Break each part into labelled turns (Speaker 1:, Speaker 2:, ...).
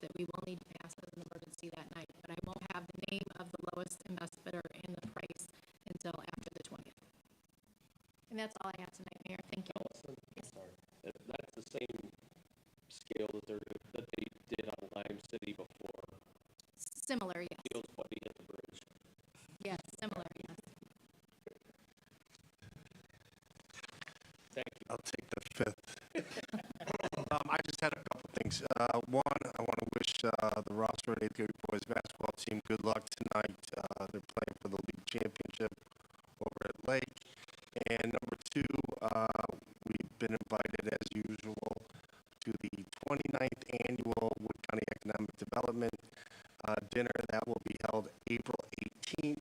Speaker 1: that we will need to pass as an emergency that night, but I won't have the name of the lowest and best bidder and the price until after the twentieth. And that's all I have tonight, Mayor. Thank you.
Speaker 2: Allison, I'm sorry. That, that's the same scale that they're, that they did on Lime City before,
Speaker 1: Similar, yes.
Speaker 2: it was what they did at the bridge.
Speaker 1: Yes, similar, yes.
Speaker 2: Thank you.
Speaker 3: I'll take the fifth. um, I just had a couple things. Uh, one, I want to wish uh, the Rossford Eighth Grade Boys Basketball Team good luck tonight. Uh, they're playing for the league championship over at Lake. And number two, uh, we've been invited as usual to the 29th annual Wood County Economic Development uh, dinner that will be held April 18th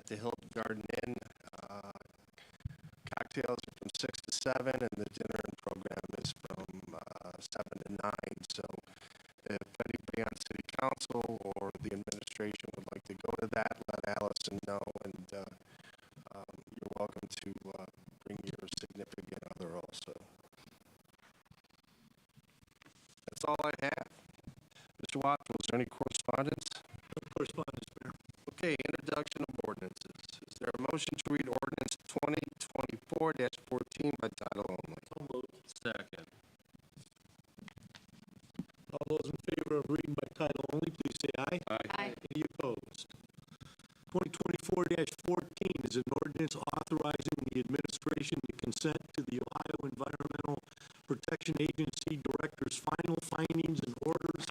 Speaker 3: at the Hilton Garden Inn. Uh, cocktails are from six to seven, and the dinner and program is from uh, seven to nine. So, if anybody on city council or the administration would like to go to that, let Allison know, and uh, um, you're welcome to uh, bring your significant other also. That's all I have. Mr. Watts, was there any correspondence? correspondence, Mayor. Okay, introduction of ordinances. Is there a motion to read ordinance twenty twenty-four fourteen by title only?
Speaker 2: Second.
Speaker 4: All those in favor of reading by title only, please say aye.
Speaker 1: Aye.
Speaker 4: Any opposed? Twenty twenty-four fourteen is an ordinance authorizing the administration to consent to the Ohio Environmental Protection Agency Director's final findings and orders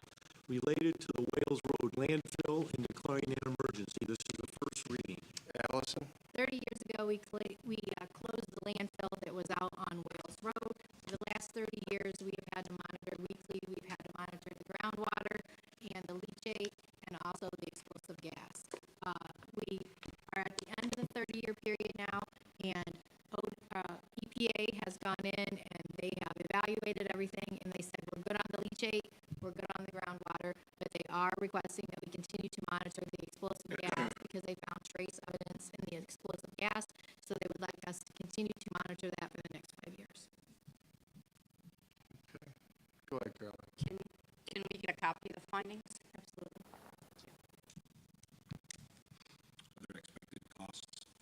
Speaker 4: related to the Wales Road landfill and declaring an emergency. This is the first reading.
Speaker 3: Allison?
Speaker 1: Thirty years ago, we, cl- we uh, closed the landfill that was out on Wales Road. For the last thirty years, we have had to monitor weekly, we've had to monitor the groundwater and the leachate and also the explosive gas. Uh, we are at the end of the thirty-year period now and O- uh, EPA has gone in and they have evaluated everything and they said, we're good on the leachate, we're good on the groundwater, but they are requesting that we continue to monitor the explosive gas because they found trace evidence in the explosive gas, so they would like us to continue to monitor that for the next five years.
Speaker 3: Go ahead, Carol.
Speaker 5: Can, can we get a copy of the findings? Absolutely.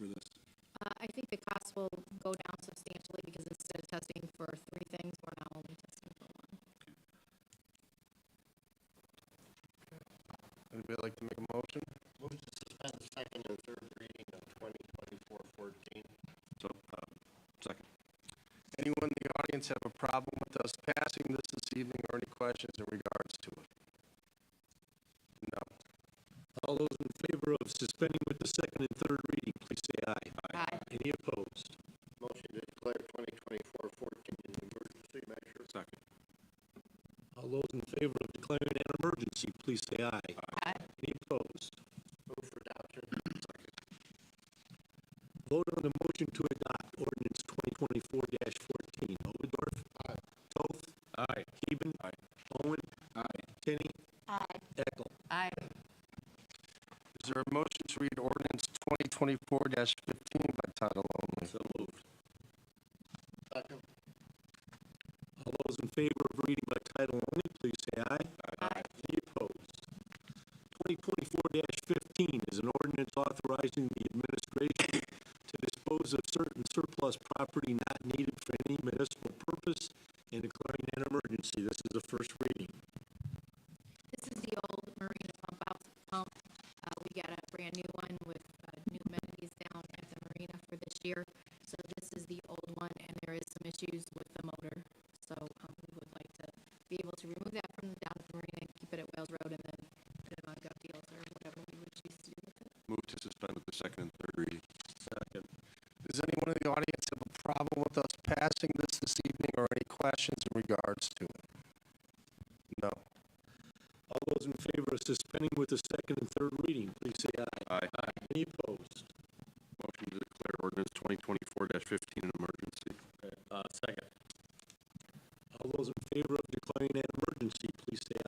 Speaker 1: Uh, I think the costs will go down substantially because instead of testing for three things, we're now only testing for one.
Speaker 3: Anybody like to make a motion?
Speaker 2: Move to suspend the second and third reading of twenty twenty-four fourteen. So, uh, second.
Speaker 3: Anyone in the audience have a problem with us passing this this evening or any questions in regards to it? No.
Speaker 4: All those in favor of suspending with the second and third reading, please say aye.
Speaker 1: Aye.
Speaker 4: Any opposed?
Speaker 2: Motion to declare twenty twenty-four fourteen an emergency measure. Second.
Speaker 4: All those in favor of declaring an emergency, please say aye.
Speaker 5: Aye.
Speaker 4: Any opposed?
Speaker 2: Move for adoption.
Speaker 4: Vote on the motion to adopt ordinance twenty twenty-four fourteen. Oberdorf. Aye. Toth. Aye. Heben. Aye. Owen. Aye. Kenny.
Speaker 5: Aye.
Speaker 4: Eckel.
Speaker 5: Aye.
Speaker 3: Is there a motion to read ordinance twenty twenty-four fifteen by title only?
Speaker 4: So moved.
Speaker 2: Second.
Speaker 4: All those in favor of reading by title only, please say aye. Aye. Any opposed? Twenty twenty-four fifteen is an ordinance authorizing the administration to dispose of certain surplus property not needed for any municipal purpose and declaring an emergency. This is the first reading.
Speaker 1: This is the old marina pump out pump. Uh, we got a brand new one with, uh, new amenities down at the marina for this year. So this is the old one and there is some issues with the motor. So, um, we would like to be able to remove that from down at the marina and keep it at Wales Road and then put it on Gov Deals or whatever we would choose to do with it.
Speaker 6: Move to suspend with the second and third reading.
Speaker 4: Second.
Speaker 3: Does anyone in the audience have a problem with us passing this this evening or any questions in regards to it? No.
Speaker 4: All those in favor of suspending with the second and third reading, please say aye.
Speaker 6: Aye.
Speaker 4: Any opposed?
Speaker 6: Motion to declare ordinance twenty twenty-four fifteen an emergency.
Speaker 4: Uh, All those in favor of declaring an emergency, please say